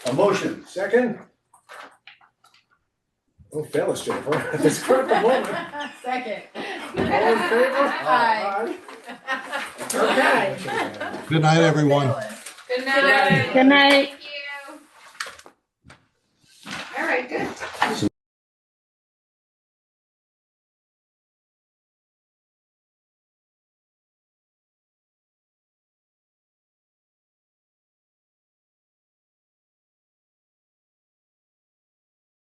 A motion, Second? Oh, fellas, Jennifer, at this critical moment. Second. All in favor? Aye. Okay. Good night, everyone. Good night. Good night. All right, good.